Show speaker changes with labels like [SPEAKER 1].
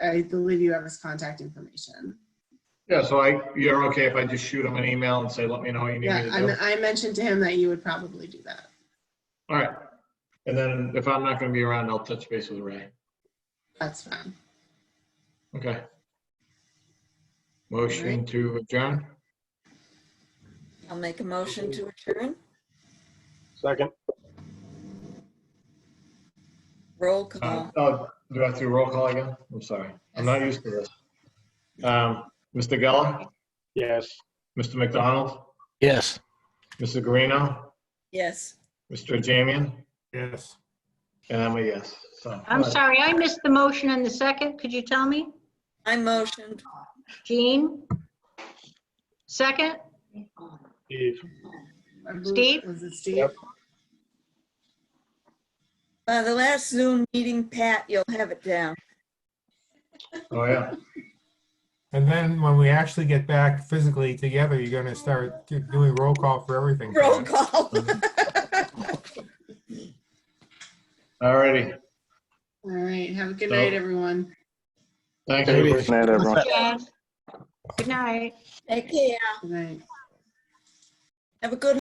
[SPEAKER 1] I believe you have his contact information.
[SPEAKER 2] Yeah, so I, you're okay if I just shoot him an email and say, let me know what you need me
[SPEAKER 1] Yeah,
[SPEAKER 2] to do?
[SPEAKER 1] I, I mentioned to him that you would probably do that.
[SPEAKER 2] All right. And then if I'm not gonna be around, I'll touch base with Ray.
[SPEAKER 1] That's fine.
[SPEAKER 2] Okay. Motion to adjourn?
[SPEAKER 3] I'll make a motion to adjourn.
[SPEAKER 4] Second.
[SPEAKER 3] Roll
[SPEAKER 2] Uh,
[SPEAKER 3] call.
[SPEAKER 2] Oh, do I have to roll call again? I'm sorry. I'm not used to this. Um, Mr. Geller,
[SPEAKER 4] Yes.
[SPEAKER 2] Mr. McDonald,
[SPEAKER 5] Yes.
[SPEAKER 2] Mr. Guarino,
[SPEAKER 3] Yes.
[SPEAKER 2] Mr. Jamian,
[SPEAKER 4] Yes.
[SPEAKER 2] and I'm a yes, so.
[SPEAKER 6] I'm sorry, I missed the motion and the second. Could you tell me?
[SPEAKER 3] I motioned.
[SPEAKER 6] Jean? Second?
[SPEAKER 4] Steve.
[SPEAKER 1] I believe-
[SPEAKER 6] Steve?
[SPEAKER 1] Was it Steve?
[SPEAKER 4] Yep.
[SPEAKER 3] Uh, the last Zoom meeting, Pat, you'll have it down.
[SPEAKER 2] Oh, yeah.
[SPEAKER 7] And then when we actually get back physically together, you're gonna start do- doing roll call for everything.
[SPEAKER 3] Roll call.
[SPEAKER 2] All righty.
[SPEAKER 1] All right, have a good
[SPEAKER 2] So-
[SPEAKER 1] night, everyone.
[SPEAKER 2] Thank you.
[SPEAKER 4] Good night, everyone.
[SPEAKER 6] Yes. Good night.
[SPEAKER 3] Take care.
[SPEAKER 1] Good night.
[SPEAKER 3] Have a good